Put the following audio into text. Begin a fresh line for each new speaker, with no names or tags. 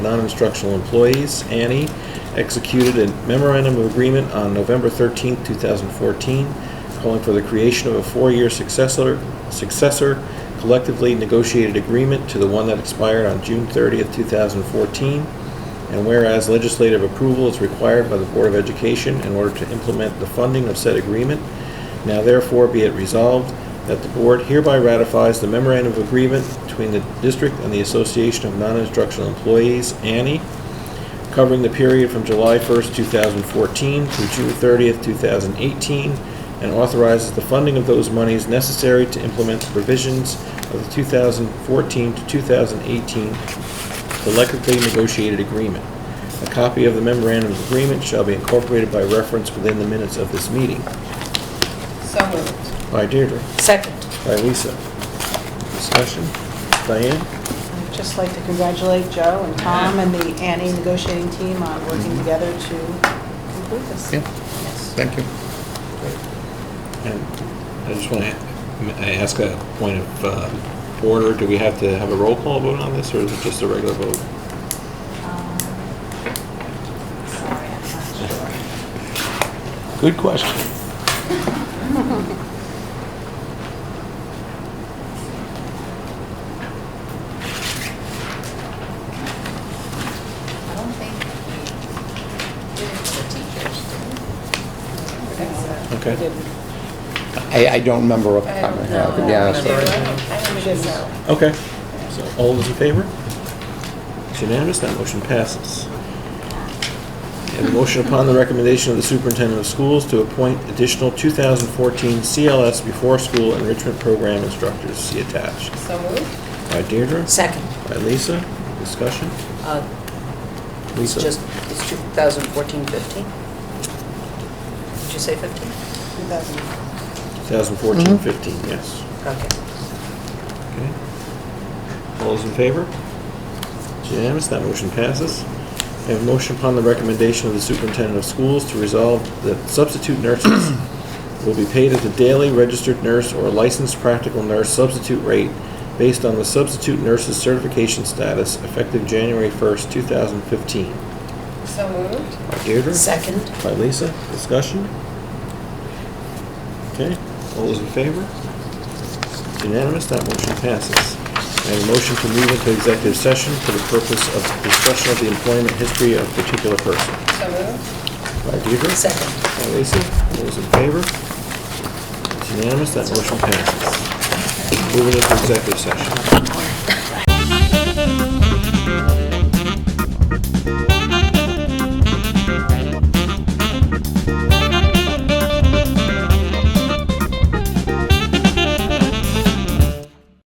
non-instructional employees, Annie, executed a memorandum of agreement on November 13, 2014, calling for the creation of a four-year successor, successor collectively negotiated agreement to the one that expired on June 30, 2014, and whereas legislative approval is required by the Board of Education in order to implement the funding of said agreement, now therefore be it resolved that the board hereby ratifies the memorandum of agreement between the district and the Association of Non-Instructional Employees, ANI, covering the period from July 1st, 2014 through June 30th, 2018, and authorizes the funding of those monies necessary to implement the provisions of the 2014 to 2018 collectively negotiated agreement. A copy of the memorandum of agreement shall be incorporated by reference within the minutes of this meeting.
So moved.
By Deirdre.
Second.
By Lisa. Discussion. Diane?
I'd just like to congratulate Joe and Tom and the Annie negotiating team on working together to conclude this.
Yeah.
Yes.
Thank you.
And I just want to ask a point of uh, order. Do we have to have a roll call vote on this, or is it just a regular vote?
Um, Sorry, I'm not sure.
Good question.
I don't think we did it for the teachers, did we?
Okay.
I, I don't remember off the
I
top of my
don't
head,
know.
I could be honest.
I
with you.
don't think so.
Okay. So all those in favor? It's unanimous, that motion passes. And a motion upon the recommendation of the superintendent of schools to appoint additional 2014 CLS before-school enrichment program instructors, see attached.
So moved.
By Deirdre?
Second.
By Lisa? Discussion?
Uh, It's
Lisa?
just, it's 2014, 15? Did you say 15?
2000.
2014-15, yes.
Okay.
Okay. All those in favor? It's unanimous, that motion passes. I have a motion upon the recommendation of the superintendent of schools to resolve that substitute nurses will be paid at the daily registered nurse or licensed practical nurse substitute rate based on the substitute nurse's certification status effective January 1st, 2015.
So moved.
By Deirdre?
Second?
By Lisa, discussion? Okay, all those in favor? It's Unanimous, that motion passes. I have a motion to move into executive session for the purpose of discussion of the employment history of a particular person.
So moved.
By Deirdre?
Second.
By Lisa, all those in favor? It's Unanimous, that motion passes. Moving into executive session.